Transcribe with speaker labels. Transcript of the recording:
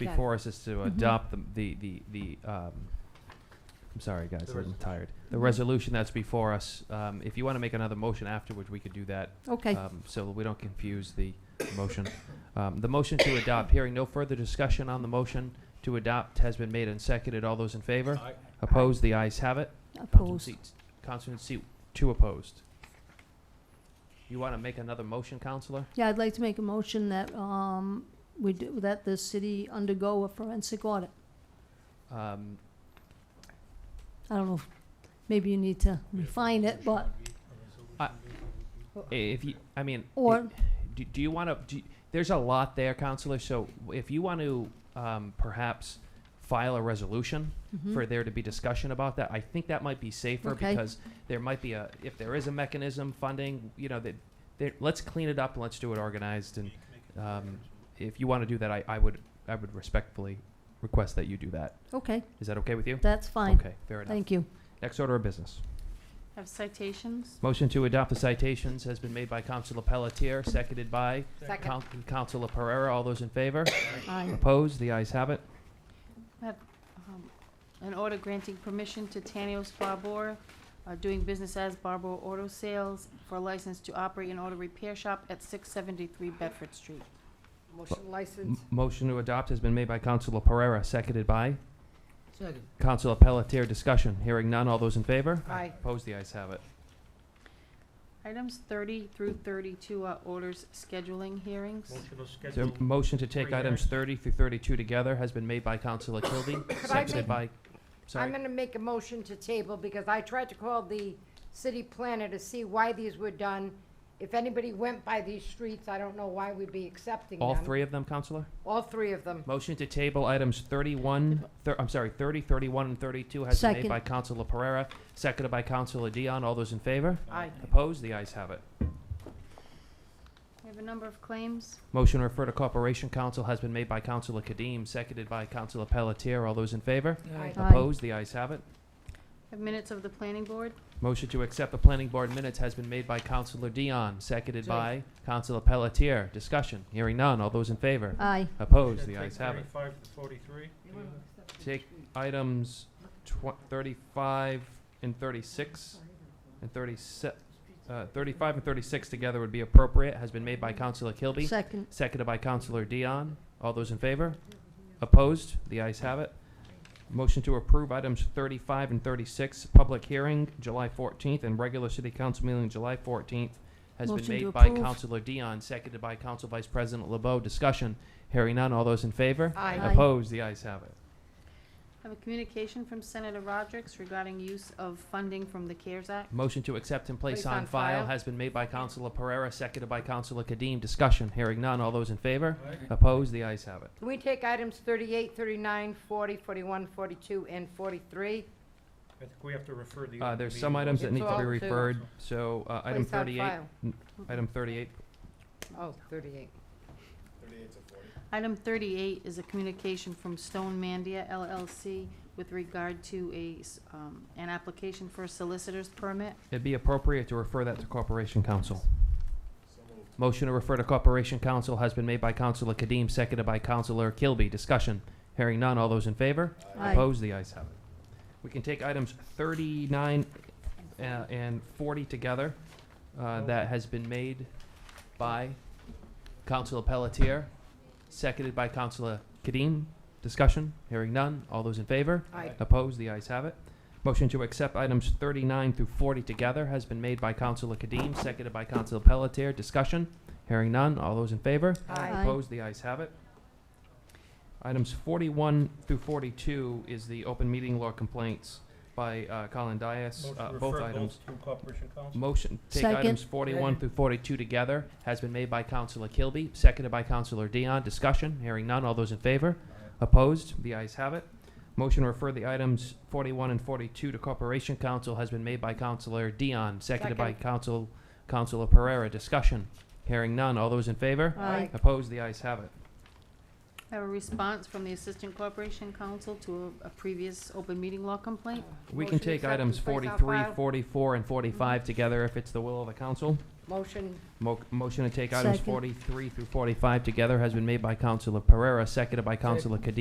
Speaker 1: Yeah.
Speaker 2: before us is to
Speaker 1: Mhm.
Speaker 2: adopt the, the, the, the um, I'm sorry, guys,
Speaker 3: The
Speaker 2: I'm
Speaker 3: resolution.
Speaker 2: tired. The
Speaker 1: Mhm.
Speaker 2: resolution that's before us, um, if you want to make another motion afterwards, we could do that,
Speaker 1: Okay,
Speaker 2: um, so we don't confuse the motion. Um, the motion to adopt, hearing no further discussion on the motion to adopt has been made and seconded. All those in favor?
Speaker 3: Aye.
Speaker 2: Opposed? The ayes have it. Councilman
Speaker 1: opposed.
Speaker 2: seat- Councilman seat two opposed. You want to make another motion, Counselor?
Speaker 1: Yeah, I'd like to make a motion that, um, we do, that the city undergo a forensic audit.
Speaker 2: Um,
Speaker 1: I don't know, if- maybe you need to refine it, but,
Speaker 2: I- i- if you, I mean,
Speaker 1: or,
Speaker 2: Do, do you want to? Do you- there's a lot there, counselor. So if you want to um, perhaps file a resolution
Speaker 1: Mhm.
Speaker 2: for there to be discussion about that, I think that might be safer
Speaker 1: Okay.
Speaker 2: because there might be a if there is a mechanism funding, you know that. there- Let's clean it up and let's do it organized. And um, if you want to do that, I, I would I would respectfully request that you do that.
Speaker 1: okay,
Speaker 2: Is that okay with you?
Speaker 1: that's fine.
Speaker 2: Okay, fair enough.
Speaker 1: Thank you.
Speaker 2: Next order of business.
Speaker 4: Have citations?
Speaker 2: Motion to adopt the citations has been made by Councilor Pelletier, seconded by Coun- Councilor Pereira. All those in favor?
Speaker 1: Aye.
Speaker 2: Opposed? The ayes have it.
Speaker 4: Um, An order granting permission to Tanios Barbour, uh, doing business as Barbour Auto Sales, for a license to operate an auto repair shop at 673 Bedford Street.
Speaker 5: Motion
Speaker 2: M-
Speaker 5: license.
Speaker 2: Motion to adopt has been made by Councilor Pereira, seconded by
Speaker 5: Second.
Speaker 2: Councilor Pelletier. Discussion. Hearing none. All those in favor?
Speaker 5: Aye.
Speaker 2: Opposed? The ayes have it.
Speaker 4: Items 30 through 32 are orders scheduling hearings.
Speaker 3: Motion to
Speaker 2: Is there
Speaker 3: schedule.
Speaker 2: a motion to take
Speaker 3: Three
Speaker 2: items
Speaker 3: hearings.
Speaker 2: thirty through thirty-two together has been made by Councilor Kilby, seconded
Speaker 5: make-
Speaker 2: by,
Speaker 5: I'm
Speaker 2: sorry.
Speaker 5: gonna make a motion to table because I tried to call the city planner to see why these were done. If anybody went by these streets, I don't know why we'd be accepting them.
Speaker 2: All three of them, Councilor?
Speaker 5: All three of them.
Speaker 2: Motion to table items thirty-one, thir- I'm sorry, thirty, thirty-one, and thirty-two has been made
Speaker 1: Second.
Speaker 2: by Councilor Pereira, seconded by Councilor Dion. All those in favor?
Speaker 5: Aye.
Speaker 2: Opposed? The ayes have it.
Speaker 4: We have a number of claims.
Speaker 2: Motion to refer to Corporation Council has been made by Councilor Kadim, seconded by Councilor Pelletier. All those in favor?
Speaker 5: Aye.
Speaker 1: Aye.
Speaker 2: Opposed? The ayes have it.
Speaker 4: We have minutes of the planning board.
Speaker 2: Motion to accept the planning board minutes has been made by Councilor Dion, seconded by Councilor Pelletier. Discussion. Hearing none. All those in favor?
Speaker 1: Aye,
Speaker 2: Opposed?
Speaker 3: Should
Speaker 2: The
Speaker 3: take
Speaker 2: ayes have it.
Speaker 3: Thirty-five to forty-three.
Speaker 2: Take items tw- thirty-five and thirty-six and thirty-se- uh, thirty-five and thirty-six together would be appropriate, has been made by Councilor Kilby.
Speaker 1: second,
Speaker 2: Seconded by Counselor Dion. All those in favor? Opposed? The ayes have it. Motion to approve items thirty-five and thirty-six, public hearing July fourteenth and regular city council meeting July fourteenth has been
Speaker 1: Motion to
Speaker 2: made by
Speaker 1: approve.
Speaker 2: Counselor Dion, seconded by Council Vice President LeBeau. Discussion. Hearing none. All those in favor?
Speaker 1: Aye.
Speaker 5: Aye.
Speaker 2: Opposed? The ayes have it.
Speaker 4: I Have a communication from Senator Rodrick regarding use of funding from the CARES Act.
Speaker 2: Motion to accept and place
Speaker 5: Place
Speaker 2: on
Speaker 5: on
Speaker 2: file
Speaker 5: file.
Speaker 2: has been made by Counselor Pereira, seconded by Counselor Kadim. Discussion. Hearing none. All those in favor?
Speaker 3: Aye.
Speaker 2: Opposed? The ayes have it.
Speaker 5: Can we take items 38, 39, 40, 41, 42, and forty-three?
Speaker 3: I think we have to refer the.
Speaker 2: Uh,
Speaker 3: open
Speaker 2: there's
Speaker 3: meeting
Speaker 2: some
Speaker 3: law.
Speaker 2: items that
Speaker 5: It's
Speaker 2: need to
Speaker 5: all
Speaker 2: be
Speaker 5: to-
Speaker 2: referred, so, uh, item
Speaker 5: Place on
Speaker 2: thirty-eight,
Speaker 5: file.
Speaker 2: item thirty-eight,
Speaker 5: Oh, 38.
Speaker 4: Item 38 is a communication from Stone Mandia LLC with regard to a, s- um, an application for a solicitor's permit.
Speaker 2: it'd be appropriate to refer that to Corporation Council. Motion to refer to Corporation Council has been made by Councilor Kadim, seconded by Councilor Kilby. Discussion. Hearing none. All those in favor?
Speaker 1: Aye.
Speaker 2: Opposed? The ayes have it. We can take items thirty-nine uh, and forty together. Uh, that has been made by Councilor Pelletier, seconded by Councilor Kadim. Discussion. Hearing none. All those in favor?
Speaker 5: Aye.
Speaker 2: Opposed? The ayes have it. Motion to accept items 39 through 40 together has been made by Councilor Kadim, seconded by Councilor Pelletier. Discussion? Hearing none. All those in favor?
Speaker 1: Aye.
Speaker 2: Opposed? The ayes have it. Items 41 through 42 is the open meeting law complaints by uh, Colin Dias.
Speaker 3: Motion
Speaker 2: Uh,
Speaker 3: to
Speaker 2: Both
Speaker 3: refer
Speaker 2: items.
Speaker 3: To Corporation Council.
Speaker 2: Motion, take
Speaker 1: Second.
Speaker 2: items 41 through 42 together has been made by Councilor Kilby, seconded by Councilor Dion. Discussion? Hearing none. All those in favor? Opposed? The ayes have it. Motion to refer the items 41 and 42 to Corporation Council has been made by Councilor Dion, seconded by Council, Councilor Pereira. Discussion? Hearing none. All those in favor?
Speaker 1: aye,
Speaker 2: Opposed? The ayes have it.
Speaker 4: I have a response from the Assistant Corporation Counsel to a a previous open meeting law complaint.
Speaker 2: We can
Speaker 5: Motion to
Speaker 2: take
Speaker 5: accept
Speaker 2: items
Speaker 5: and place on
Speaker 2: 43,
Speaker 5: file.
Speaker 2: 44, and 45 together if it's the will of the council.
Speaker 5: Motion,
Speaker 2: Mo- Motion to take items
Speaker 1: Second.
Speaker 2: forty-three through forty-five together has been made by Counselor Pereira, seconded by Counselor Kadim.